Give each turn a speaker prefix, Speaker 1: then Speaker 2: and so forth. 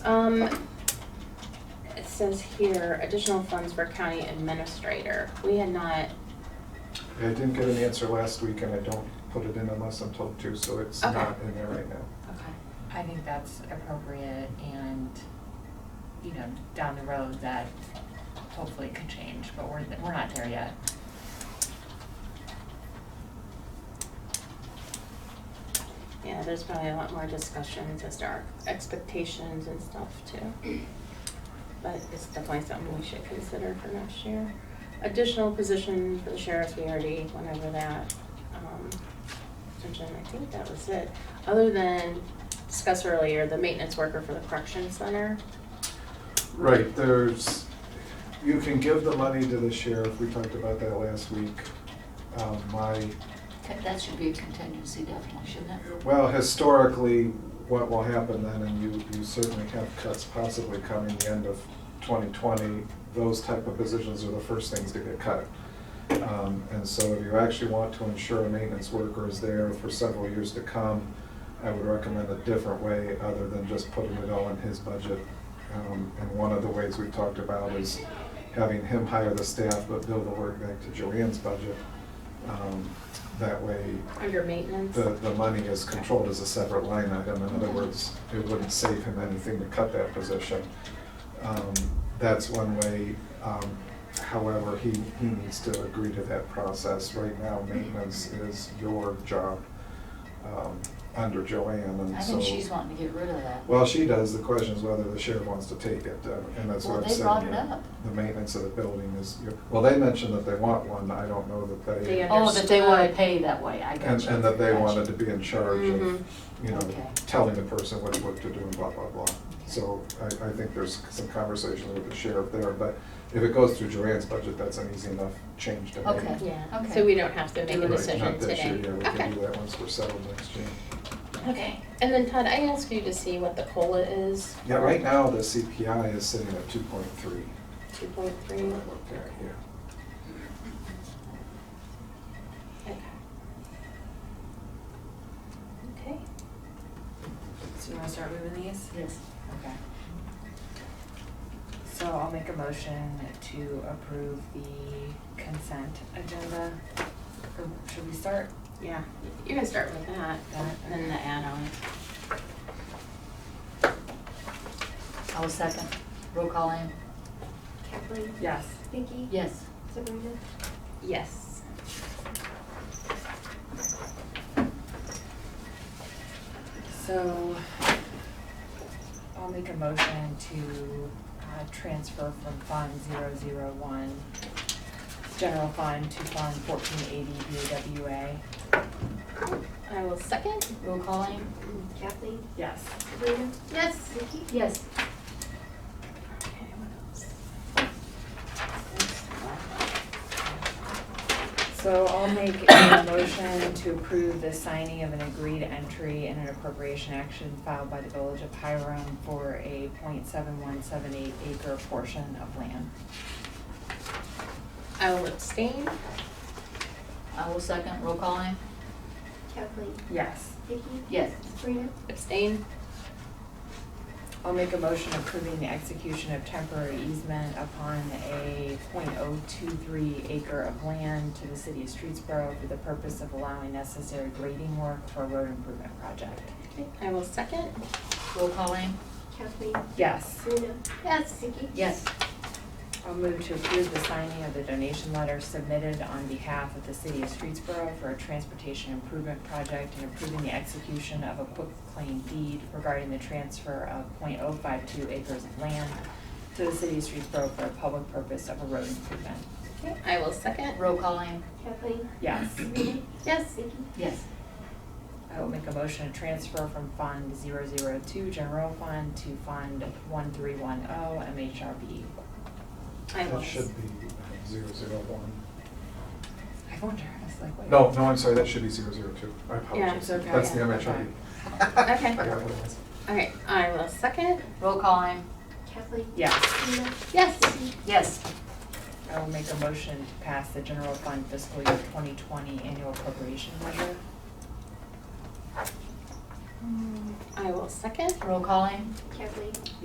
Speaker 1: Um, it says here, additional funds for county administrator. We had not,
Speaker 2: I didn't get an answer last week, and I don't put it in unless I'm told to, so it's
Speaker 1: Okay.
Speaker 2: not in there right now.
Speaker 1: okay,
Speaker 3: I think that's appropriate and, you know, down the road that hopefully could change, but we're, we're not there yet.
Speaker 1: yeah, there's probably a lot more discussions as to our expectations and stuff too. But it's definitely something we should consider for next year. Additional position for the sheriff, we already went over that. Um, and then I think that was it. Other than discuss earlier, the maintenance worker for the correction center.
Speaker 2: Right, there's, you can give the money to the sheriff, we talked about that last week. Um, My,
Speaker 4: That- That should be a contingency definitely, shouldn't it?
Speaker 2: well, historically, what will happen then, and you, you certainly have cuts possibly coming the end of 2020, those type of positions are the first things to get cut. Um, And so if you actually want to ensure a maintenance worker is there for several years to come, I would recommend a different way other than just putting it all in his budget. Um, And one of the ways we talked about is having him hire the staff but bill the work back to Joanne's budget. Um, That way,
Speaker 1: Under maintenance?
Speaker 2: the, the money is controlled as a separate line item. In other words, it wouldn't save him anything to cut that position. Um, That's one way. Um, However, he, he needs to agree to that process. Right now, maintenance is your job um, under Joanne, and so.
Speaker 4: I think she's wanting to get rid of that.
Speaker 2: Well, she does. The question is whether the sheriff wants to take it, uh, and that's
Speaker 4: Well,
Speaker 2: what I'm
Speaker 4: they
Speaker 2: saying.
Speaker 4: brought it
Speaker 2: that
Speaker 4: up.
Speaker 2: The maintenance of the building is, your- well, they mentioned that they want one. I don't know that
Speaker 1: They
Speaker 2: they,
Speaker 1: under-
Speaker 2: and,
Speaker 4: Oh, that they want to
Speaker 1: Understood.
Speaker 4: pay that way, I got you.
Speaker 2: and that they
Speaker 4: Gotcha. Mm-hmm.
Speaker 2: wanted to be in charge
Speaker 1: Mhm.
Speaker 2: of, you know,
Speaker 4: Okay.
Speaker 2: telling the person what, what to do and blah, blah, blah. So I, I think there's some conversation with the sheriff there, but if it goes through Joanne's budget, that's an easy enough change to make.
Speaker 4: Okay.
Speaker 1: Yeah,
Speaker 4: Okay.
Speaker 1: so we don't have to make
Speaker 4: Do
Speaker 1: a
Speaker 4: it.
Speaker 2: Right,
Speaker 1: decision
Speaker 2: not this year,
Speaker 1: today.
Speaker 2: Yeah, we
Speaker 1: Okay.
Speaker 2: can do that once we're settled next year.
Speaker 1: Okay, and then Todd, I asked you to see what the COLA is.
Speaker 2: Yeah, right now, the CPI is sitting at two point three.
Speaker 1: Two point
Speaker 2: I
Speaker 4: Mm-hmm.
Speaker 1: three,
Speaker 2: looked at, yeah.
Speaker 1: okay. Okay,
Speaker 3: So you wanna start moving these?
Speaker 4: Yes.
Speaker 3: Okay. So I'll make a motion to approve the consent agenda. Or should we start
Speaker 1: yeah, you can start with that,
Speaker 3: That.
Speaker 1: and then the add-on.
Speaker 4: I will second. Roll call in.
Speaker 5: Kathleen?
Speaker 3: Yes.
Speaker 5: Vicky?
Speaker 4: Yes.
Speaker 5: Sabrina?
Speaker 1: Yes.
Speaker 3: So I'll make a motion to uh, transfer from Fund 001, General Fund, to Fund 1480 BAWA.
Speaker 1: I will second.
Speaker 4: Roll call in.
Speaker 5: Kathleen?
Speaker 3: Yes.
Speaker 5: Sabrina?
Speaker 1: Yes.
Speaker 5: Vicky?
Speaker 4: Yes.
Speaker 1: Okay, what else?
Speaker 3: So I'll make a motion to approve the signing of an agreed entry in an appropriation action filed by the Village of Hiram for a .7178 acre portion of land.
Speaker 1: I will abstain.
Speaker 4: I will second. Roll call in.
Speaker 5: Kathleen?
Speaker 3: Yes.
Speaker 5: Vicky?
Speaker 4: Yes.
Speaker 5: Sabrina?
Speaker 1: Abstain.
Speaker 3: I'll make a motion approving the execution of temporary easement upon a .023 acre of land to the city of Streetsboro for the purpose of allowing necessary grading work for a road improvement project.
Speaker 1: Okay, I will second.
Speaker 4: Roll call in.
Speaker 5: Kathleen?
Speaker 3: Yes.
Speaker 5: Sabrina?
Speaker 1: Yes.
Speaker 5: Vicky?
Speaker 4: Yes.
Speaker 3: I'll move to approve the signing of the donation letter submitted on behalf of the city of Streetsboro for a transportation improvement project and approving the execution of a quitclaim deed regarding the transfer of .052 acres of land to the city of Streetsboro for a public purpose of a road improvement.
Speaker 1: Okay, I will second.
Speaker 4: Roll call in.
Speaker 5: Kathleen?
Speaker 3: Yes.
Speaker 5: Sabrina?
Speaker 1: Yes.
Speaker 5: Vicky?
Speaker 4: Yes.
Speaker 3: I will make a motion to transfer from Fund 002 General Fund to Fund 1310 MHRB.
Speaker 1: I will.
Speaker 2: That should be uh, zero zero one.
Speaker 3: I wonder, I was like, wait.
Speaker 2: No, no, I'm sorry, that should be zero zero two. I apologize.
Speaker 1: Yeah, it's okay.
Speaker 2: That's the
Speaker 3: Yeah,
Speaker 2: MHRD.
Speaker 1: Okay.
Speaker 2: I got what it was.
Speaker 1: Okay, I will second.
Speaker 4: Roll call in.
Speaker 5: Kathleen?
Speaker 3: Yes.
Speaker 5: Sabrina?
Speaker 1: Yes.
Speaker 5: Vicky?
Speaker 4: Yes.
Speaker 3: I will make a motion to pass the general fund fiscal year 2020 annual appropriation measure.
Speaker 1: I will second.
Speaker 4: Roll call in.
Speaker 5: Kathleen?